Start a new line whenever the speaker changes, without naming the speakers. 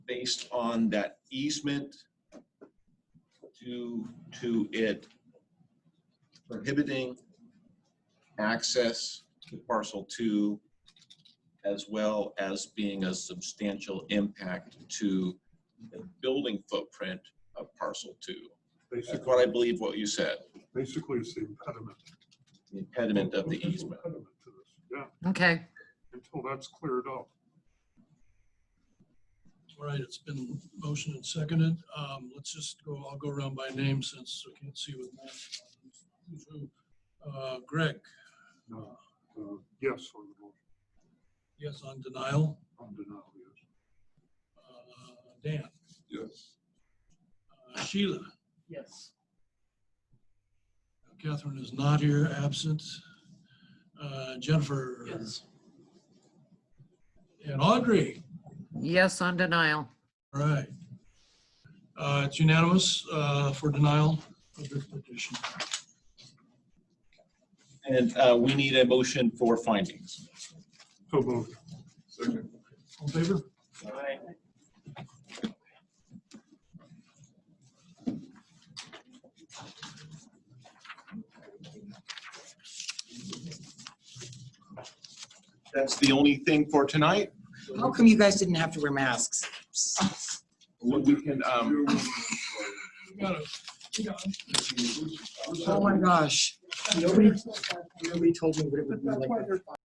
based on that easement due to it prohibiting access to parcel two as well as being a substantial impact to the building footprint of parcel two. That's
Basically,
what I believe what you said,
basically it's the impediment.
the impediment of the
It's an
easement.
impediment to this. Yeah,
Okay,
until that's cleared up.
All right, it's been motioned and seconded. Um, let's just go, I'll go around by name since we can't see with. who's who. Uh, Greg,
No, uh, Yes, on the motion,
yes on denial.
on denial, yes.
Uh, Dan,
Yes.
Uh, Sheila,
Yes.
Catherine is not here, absent. Uh, Jennifer.
Yes.
And Audrey,
yes on denial.
all right. Uh, it's unanimous, uh, for denial of this petition.
And uh, we need a motion for findings.
So moved.
All in favor?
That's the only thing for tonight.
How come you guys didn't have to wear masks?
We- We can, um,
We got it. We got it.
Oh my gosh. Nobody, nobody told me what it would be like.